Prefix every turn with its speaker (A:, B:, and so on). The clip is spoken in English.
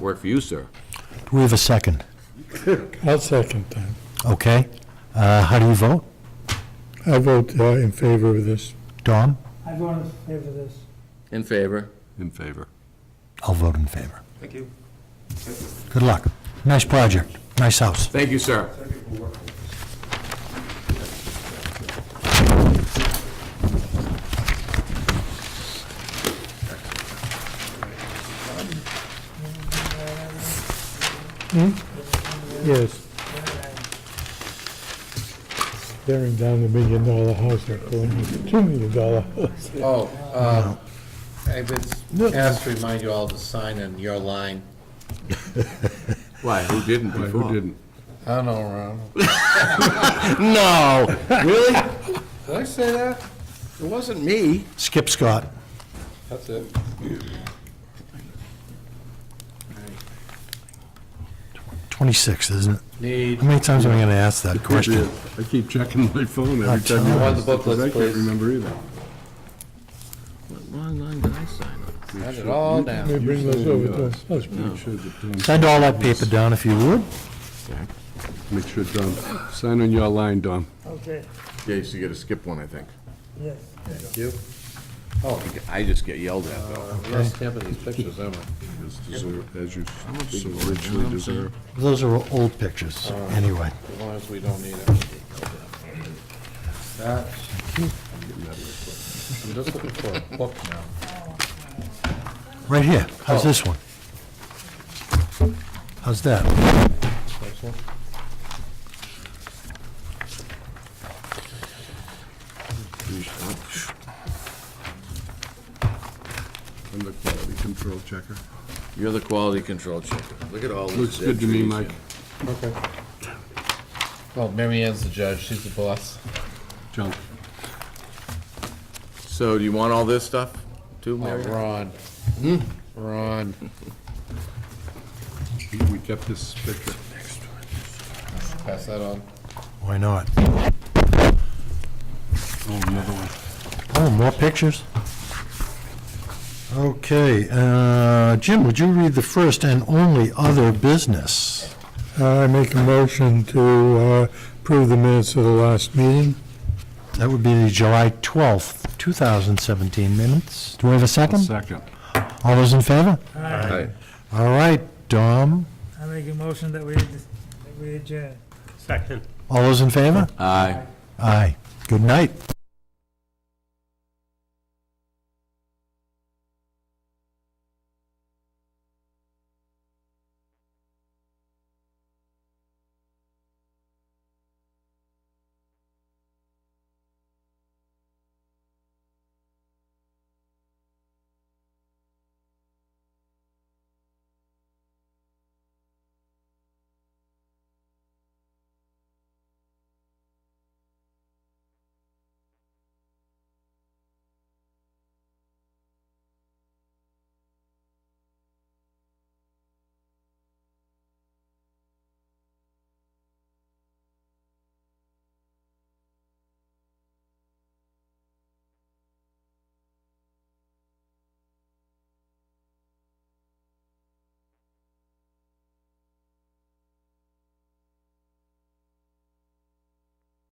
A: Work for you, sir.
B: Do we have a second?
C: I'll second that.
B: Okay. Uh, How do you vote?
C: I vote uh, in favor of this.
B: Dom?
D: I vote in favor of this.
A: In favor.
E: In favor.
B: I'll vote in favor.
E: Thank you.
B: Good luck. Nice project. Nice house.
A: Thank you, sir.
C: Yes. Tearing down the million dollar house, they're calling it two million dollar house.
F: Oh, uh, I was asked to remind you all to sign in your line.
A: Why, who didn't before?
E: Who didn't?
F: I don't know, Ron.
A: No, really?
F: Did I say that?
A: It wasn't me.
B: Skip Scott.
F: That's it.
B: Twenty-six, isn't it?
F: Need,
B: How many times am I going to ask that question?
E: I keep checking my phone every time you
B: I
F: want
E: ask,
F: the
E: because
F: booklets,
E: I can't
F: please.
E: remember either.
A: What wrong line did I sign on?
F: write it all down.
C: They bring those over to us. Let's
E: Make sure that Don-
B: Send all that paper down if you would.
E: Make sure, Don, sign on your line, Don.
D: Okay,
A: Yeah, you still gotta skip one, I think.
D: yes.
F: You?
A: Oh, I just get yelled at, though.
F: I'm not stamping these pictures, am I?
E: Uh, As deserve- as you so richly deserve.
B: Those are old pictures, anyway.
F: As long as we don't need it. That- I'm just looking for a book now.
B: Right here. How's this one? How's that?
F: This one?
E: I'm the quality control checker.
A: You're the quality control checker. Look at all this.
E: Looks good to me, Mike.
F: Okay. Well, Mary Ann's the judge, she's the boss.
E: Junk.
A: So do you want all this stuff, too,
F: Oh, Hmm.
A: Mary?
F: Ron. Ron.
E: We kept this picture.
F: Pass that on.
B: Why not?
E: Oh, another one.
B: Oh, more pictures? Okay, uh, Jim, would you read the first and only other business?
C: I make a motion to uh, approve the minutes of the last meeting.
B: That would be the July 12th, 2017 minutes. Do we have a second?
E: Second.
B: All those in favor?
A: Right.
B: All right, Dom,
D: I make a motion that we, that we adjourn.
B: all those in favor?
A: Aye.
B: Aye. Good night.